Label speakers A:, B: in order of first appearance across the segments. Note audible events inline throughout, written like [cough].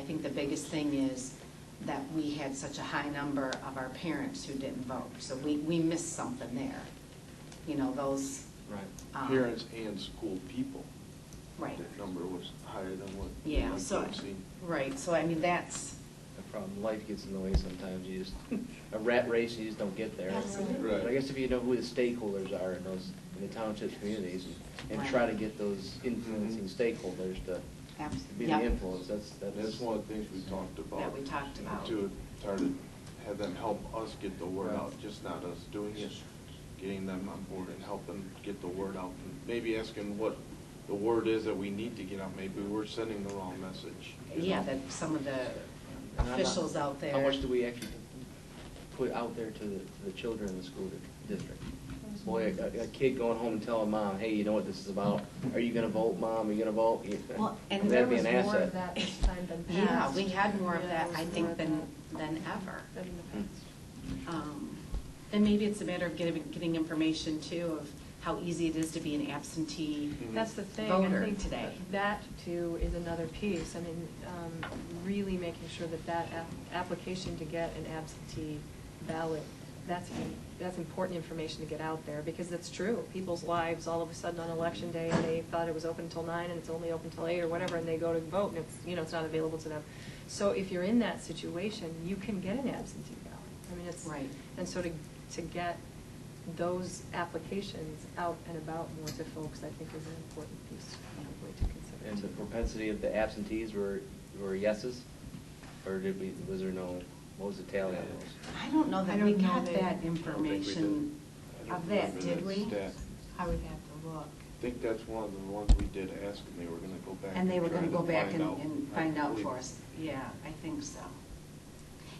A: think the biggest thing is that we had such a high number of our parents who didn't vote. So we, we missed something there. You know, those.
B: Right,
A: um,
B: parents and school people.
A: Right.
B: That number was higher than what.
A: Yeah,
B: what
A: so,
B: I've seen.
A: right, so I mean, that's,
C: The problem, life gets in the way sometimes, you just, a rat race, you just don't get there.
A: Absolutely.
B: Right.
C: But I guess if you know who the stakeholders are in those, in the townships, communities, and- and try to get those influencing stakeholders to
A: Abs-
C: be
A: yep.
C: the influence, that's, that's.
B: That's one of the things we talked about.
A: That we talked about.
B: To try to have them help us get the word out, just not us doing it, getting them on board and helping get the word out. and Maybe asking what the word is that we need to get out, maybe we're sending the wrong message. you
A: yeah,
B: know?
A: that some of the
C: And I'm not-
A: officials out there.
C: How much do we actually put out there to the, to the children in the school di- district? Boy, a, a kid going home and telling mom, hey, you know what this is about? Are you gonna vote, mom? Are you gonna vote? You-
D: Well,
A: and
C: [laughs] That'd
D: there
C: be
D: was
C: an
D: more
C: asset.
D: of that this time than
A: Yeah,
D: past.
A: we had more of
D: Yeah,
A: that,
D: there
A: I
D: was more
A: think,
D: of
A: than,
D: that
A: than ever.
D: Than in the past.
A: Um, And maybe it's a matter of getting, getting information too of how easy it is to be an absentee.
B: Mhm.
D: That's the thing. I
A: Mm-hmm. Voter
D: think
A: today.
D: That too is another piece. I mean, um, really making sure that that ap- application to get an absentee ballot, that's, im- that's important information to get out there because it's true. People's lives, all of a sudden on election day, they thought it was open until nine and it's only open till eight or whatever, and they go to vote and it's, you know, it's not available to them. So if you're in that situation, you can get an absentee ballot. I mean, it's.
A: Right.
D: And so to, to get those applications out and about more to folks, I think is an important piece probably to consider.
C: And the
D: too.
C: propensity of the absentees were, were yeses? Or did we, was there no, what was the tally on those?
A: I don't know
E: I
A: that
E: don't
A: we
E: know
A: got
E: that-
A: that
B: I don't think we
A: information
B: did. I
A: of
B: don't
A: that,
B: remember
A: did we?
B: stat.
E: I would have to look.
B: I think that's one of the ones we did ask, and they were gonna go back.
A: And they were
B: try
A: gonna go back and,
B: out.
A: and
B: I
A: find out
B: believe-
A: for us. Yeah, I think so.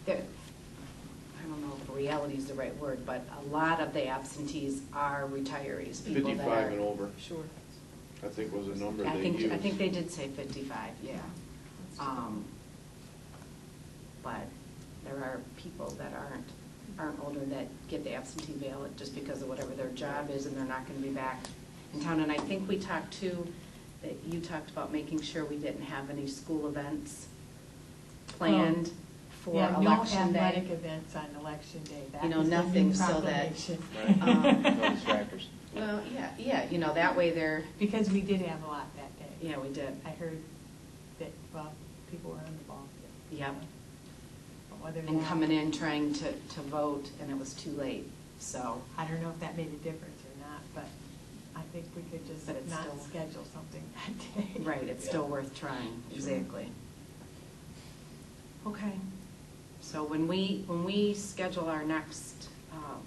A: There, I don't know if reality is the right word, but a lot of the absentees are retirees, people that are.
B: Fifty-five and over,
D: Sure.
B: I think was the number
A: I
B: they
A: think,
B: used.
A: I think they did say fifty-five, yeah. Um, But there are people that aren't, aren't older that get the absentee ballot just because of whatever their job is and they're not gonna be back in town. And I think we talked too, that you talked about making sure we didn't have any school events planned for
E: Yeah,
A: election
E: No athletic
A: day.
E: events on election day. That
A: You know,
E: is the new
A: nothing so that-
E: proclamation.
C: [laughs] Right.
A: Um,
C: No distractors.
A: Well, yeah, yeah, you know, that way they're,
E: Because we did have a lot that day.
A: yeah, we did.
E: I heard that, well, people were on the ball.
A: Yep.
E: But whether
A: And
E: that-
A: coming in trying to, to vote and it was too late, so.
E: I don't know if that made a difference or not, but I think we could just
A: But it's
E: not
A: still-
E: schedule something [laughs] that day.
A: Right, it's still worth trying,
C: Sure.
A: exactly. Okay, so when we, when we schedule our next um,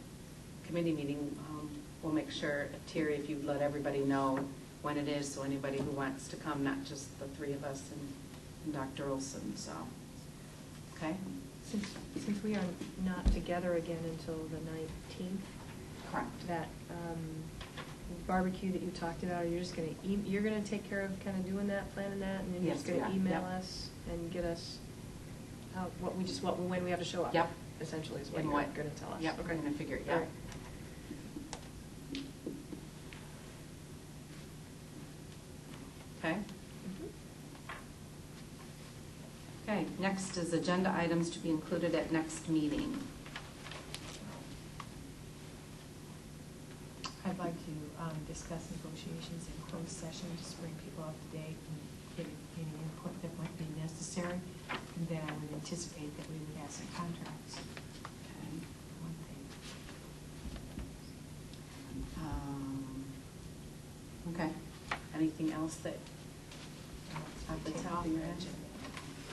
A: committee meeting, um, we'll make sure, Terry, if you'd let everybody know when it is, so anybody who wants to come, not just the three of us and- and Dr. Olson, so, okay?
D: Since, since we are not together again until the nineteenth,
A: Correct.
D: that um, barbecue that you talked about, are you just gonna, e- you're gonna take care of kind of doing that, planning that, and then you're just
A: Yes,
D: gonna
A: yeah,
D: email
A: yep.
D: us and get us how, what we just, what, when we have to show up?
A: Yep.
D: Essentially is what
A: And
D: you're
A: what-
D: gonna tell us.
A: Yep, we're
D: Okay.
A: gonna figure it
D: All
A: out.
D: right.
A: Okay?
D: Mm-hmm.
A: Okay, next is agenda items to be included at next meeting.
E: I'd like to um, discuss negotiations in closed session, just bring people up to date and get any input that might be necessary. And then I would anticipate that we would have some contracts.
A: Okay.
E: One thing.
A: Um, Okay, anything else that, at the top of your head?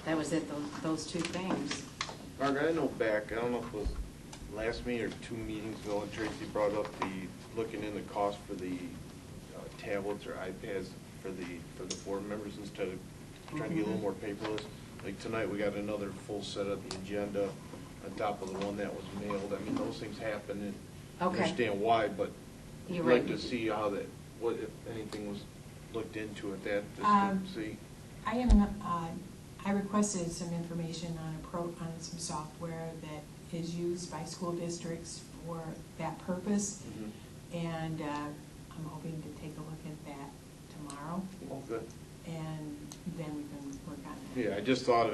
A: That was it, those, those two things.
B: Margaret, I know back, I don't know if it was last meeting or two meetings ago, and Tracy brought up the, looking in the cost for the uh, tablets or iPads for the, for the board members instead of trying to get a
A: Mm-hmm.
B: little more paperless. Like tonight, we got another full set of the agenda on top of the one that was mailed. I mean, those things happen and
A: Okay.
B: understand why, but
A: You're
B: I'd
A: right.
B: like to see how that, what, if anything was looked into at that,
E: Um,
B: just to see.
E: I am, uh, I requested some information on a pro, on some software that is used by school districts for that purpose.
B: Mhm.
E: And uh, I'm hoping to take a look at that tomorrow,
B: Oh, good.
E: and then we can work on that.
B: Yeah, I just thought of